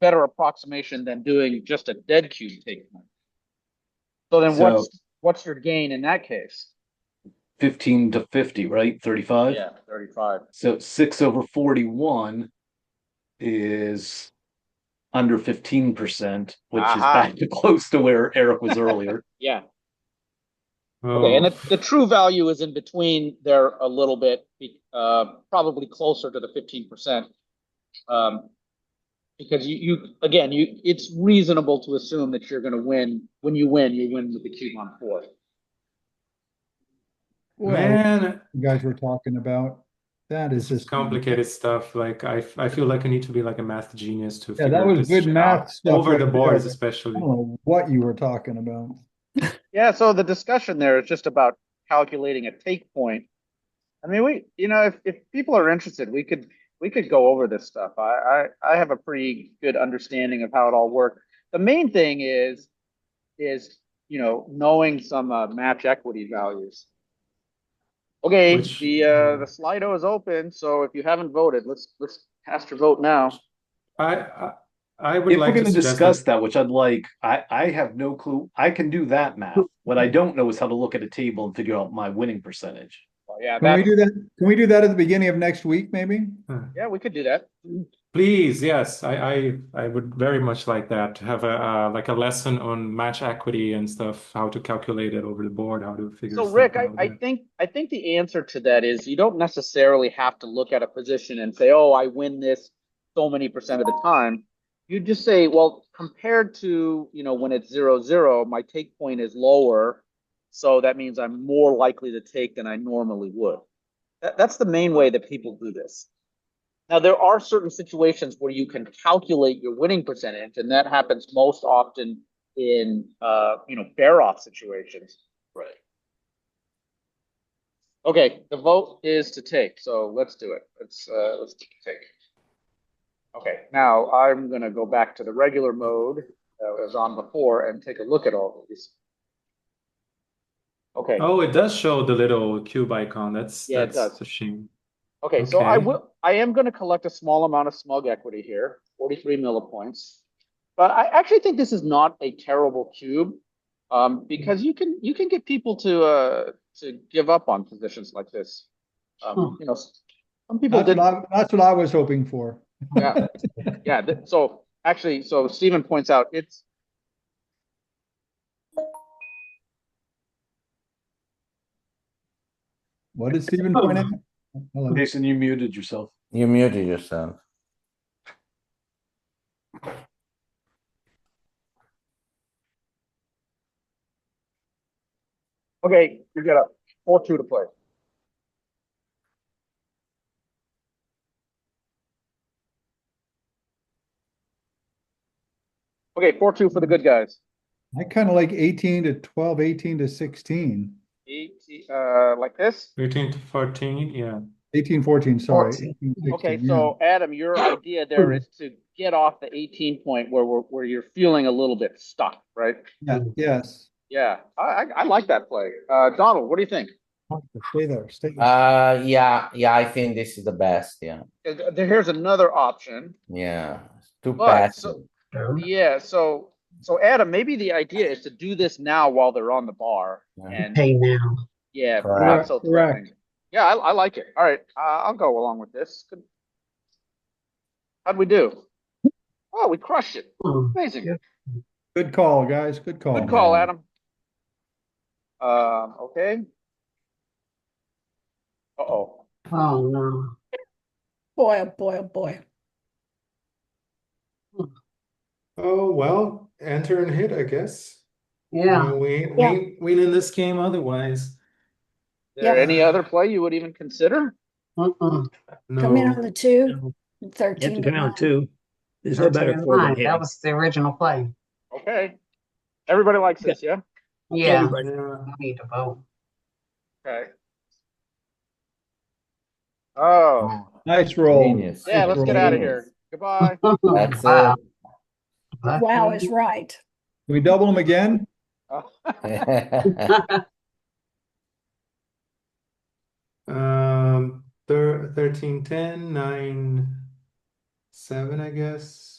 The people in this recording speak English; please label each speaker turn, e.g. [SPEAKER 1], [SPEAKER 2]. [SPEAKER 1] better approximation than doing just a dead cube take. So then what's, what's your gain in that case?
[SPEAKER 2] fifteen to fifty, right? Thirty-five?
[SPEAKER 1] Yeah, thirty-five.
[SPEAKER 2] So six over forty-one is under fifteen percent, which is
[SPEAKER 1] Aha.
[SPEAKER 2] back to close to where Eric was earlier.
[SPEAKER 1] Yeah, okay, and
[SPEAKER 3] Oh,
[SPEAKER 1] it, the true value is in between there a little bit, be- uh, probably closer to the fifteen percent. Um, because you, you, again, you, it's reasonable to assume that you're gonna win, when you win, you win with the cube on four.
[SPEAKER 4] Well,
[SPEAKER 3] Man,
[SPEAKER 4] you guys were talking about, that is just.
[SPEAKER 3] complicated stuff. Like I, f- I feel like I need to be like a math genius to
[SPEAKER 4] Yeah,
[SPEAKER 3] figure
[SPEAKER 4] that was
[SPEAKER 3] this
[SPEAKER 4] good
[SPEAKER 3] shit
[SPEAKER 4] math
[SPEAKER 3] out.
[SPEAKER 4] stuff
[SPEAKER 3] over
[SPEAKER 4] right
[SPEAKER 3] the boards,
[SPEAKER 4] there. I
[SPEAKER 3] especially.
[SPEAKER 4] don't know what you were talking about.
[SPEAKER 1] Yeah, so the discussion there is just about calculating a take point. I mean, we, you know, if, if people are interested, we could, we could go over this stuff. I, I, I have a pretty good understanding of how it all works. The main thing is, is, you know, knowing some, uh, match equity values. Okay,
[SPEAKER 3] Which-
[SPEAKER 1] the, uh, the Slido is open, so if you haven't voted, let's, let's cast your vote now.
[SPEAKER 3] I, I, I would
[SPEAKER 2] If we're
[SPEAKER 3] like to
[SPEAKER 2] gonna
[SPEAKER 3] suggest
[SPEAKER 2] discuss
[SPEAKER 3] that.
[SPEAKER 2] that, which I'd like, I, I have no clue. I can do that math. What I don't know is how to look at a table and figure out my winning percentage.
[SPEAKER 1] Well, Oh, Yeah,
[SPEAKER 4] Can we
[SPEAKER 1] that,
[SPEAKER 4] do that, can we do that at the beginning of next week, maybe?
[SPEAKER 1] yeah, we could do that.
[SPEAKER 3] Please, yes, I, I, I would very much like that to have a uh, like a lesson on match equity and stuff, how to calculate it over the board, how to figure
[SPEAKER 1] So
[SPEAKER 3] stuff
[SPEAKER 1] Rick, I,
[SPEAKER 3] out.
[SPEAKER 1] I
[SPEAKER 3] yeah.
[SPEAKER 1] think, I think the answer to that is you don't necessarily have to look at a position and say, oh, I win this so many percent of the time. You just say, well, compared to, you know, when it's zero, zero, my take point is lower. So that means I'm more likely to take than I normally would. That, that's the main way that people do this. Now, there are certain situations where you can calculate your winning percentage, and that happens most often in, uh, you know, bear-off situations.
[SPEAKER 2] Right.
[SPEAKER 1] Okay, the vote is to take, so let's do it. Let's, uh, let's take. Okay, now I'm gonna go back to the regular mode that was on before and take a look at all of these. Okay,
[SPEAKER 3] Oh, it does show the little cube icon. That's
[SPEAKER 1] Yeah, it
[SPEAKER 3] that's
[SPEAKER 1] does.
[SPEAKER 3] a shame.
[SPEAKER 1] okay, so I
[SPEAKER 3] okay.
[SPEAKER 1] will, I am gonna collect a small amount of smug equity here, forty-three millipoints. But I actually think this is not a terrible cube, um, because you can, you can get people to, uh, to give up on positions like this. Um, you know, s- some people
[SPEAKER 4] That's
[SPEAKER 1] did.
[SPEAKER 4] what I, that's what I was hoping for.
[SPEAKER 1] Yeah, yeah, th- so actually, so Stephen points out, it's.
[SPEAKER 4] What did Stephen point out? Hello.
[SPEAKER 2] Jason, you muted yourself.
[SPEAKER 5] You muted yourself.
[SPEAKER 1] Okay, you get up, four two to play. Okay, four two for the good guys.
[SPEAKER 4] I kind of like eighteen to 12, 18 to 16,
[SPEAKER 1] Eight, uh, like this?
[SPEAKER 3] 13 to 14, yeah.
[SPEAKER 4] 18, 14, sorry.
[SPEAKER 1] 14.
[SPEAKER 4] 18,
[SPEAKER 1] Okay,
[SPEAKER 4] 16, yeah.
[SPEAKER 1] so Adam, your idea there is to get off the eighteen point where we're, where you're feeling a little bit stuck, right?
[SPEAKER 4] Yeah, yes.
[SPEAKER 1] Yeah, I, I, I like that play. Uh, Donald, what do you think?
[SPEAKER 4] Stay there, stay there.
[SPEAKER 5] Uh, yeah, yeah, I think this is the best. Yeah,
[SPEAKER 1] 'Cause there- Here's another option.
[SPEAKER 5] yeah. It's Too
[SPEAKER 1] But,
[SPEAKER 5] passive.
[SPEAKER 1] so- Yeah, so, so Adam, maybe the idea is to do this now while they're on the bar
[SPEAKER 5] Yeah.
[SPEAKER 1] and,
[SPEAKER 6] pay now.
[SPEAKER 1] yeah, not
[SPEAKER 5] Correct,
[SPEAKER 1] so
[SPEAKER 4] correct.
[SPEAKER 1] threatening. Yeah, I, I like it. All right, uh, I'll go along with this. Good. How'd we do? Oh, we crushed it.
[SPEAKER 6] Oh,
[SPEAKER 1] Amazing.
[SPEAKER 6] Yeah.
[SPEAKER 4] Good call, guys, good call.
[SPEAKER 1] Good call,
[SPEAKER 5] man.
[SPEAKER 1] Adam. Um, okay. Uh-oh.
[SPEAKER 6] oh, no.
[SPEAKER 7] Boy, oh boy, oh boy.
[SPEAKER 3] Oh, well, enter and hit, I guess.
[SPEAKER 6] Yeah.
[SPEAKER 3] We, we,
[SPEAKER 7] Yeah.
[SPEAKER 3] we win in this game otherwise.
[SPEAKER 1] Is there
[SPEAKER 7] Yeah.
[SPEAKER 1] any other play you would even consider?
[SPEAKER 6] Mm-mm.
[SPEAKER 7] Come in
[SPEAKER 3] No.
[SPEAKER 7] on the two,
[SPEAKER 8] No,
[SPEAKER 7] and
[SPEAKER 8] You have to
[SPEAKER 7] thirteen to
[SPEAKER 8] come
[SPEAKER 7] nine.
[SPEAKER 8] out too. There's no better four than
[SPEAKER 6] That
[SPEAKER 8] him.
[SPEAKER 6] was the original play.
[SPEAKER 1] Okay. Everybody likes this, yeah?
[SPEAKER 6] Yeah.
[SPEAKER 8] Everybody.
[SPEAKER 6] We need to vote.
[SPEAKER 1] Okay. Oh.
[SPEAKER 4] Nice roll.
[SPEAKER 5] Genius.
[SPEAKER 1] Yeah, let's get out of
[SPEAKER 5] Genius.
[SPEAKER 1] here. Goodbye.
[SPEAKER 5] That's
[SPEAKER 6] Wow. Lucky.
[SPEAKER 7] Wow is right.
[SPEAKER 4] Can we double them again?
[SPEAKER 1] Oh.
[SPEAKER 5] it.
[SPEAKER 3] Um, thir- 13, 10, 9, 7, I guess.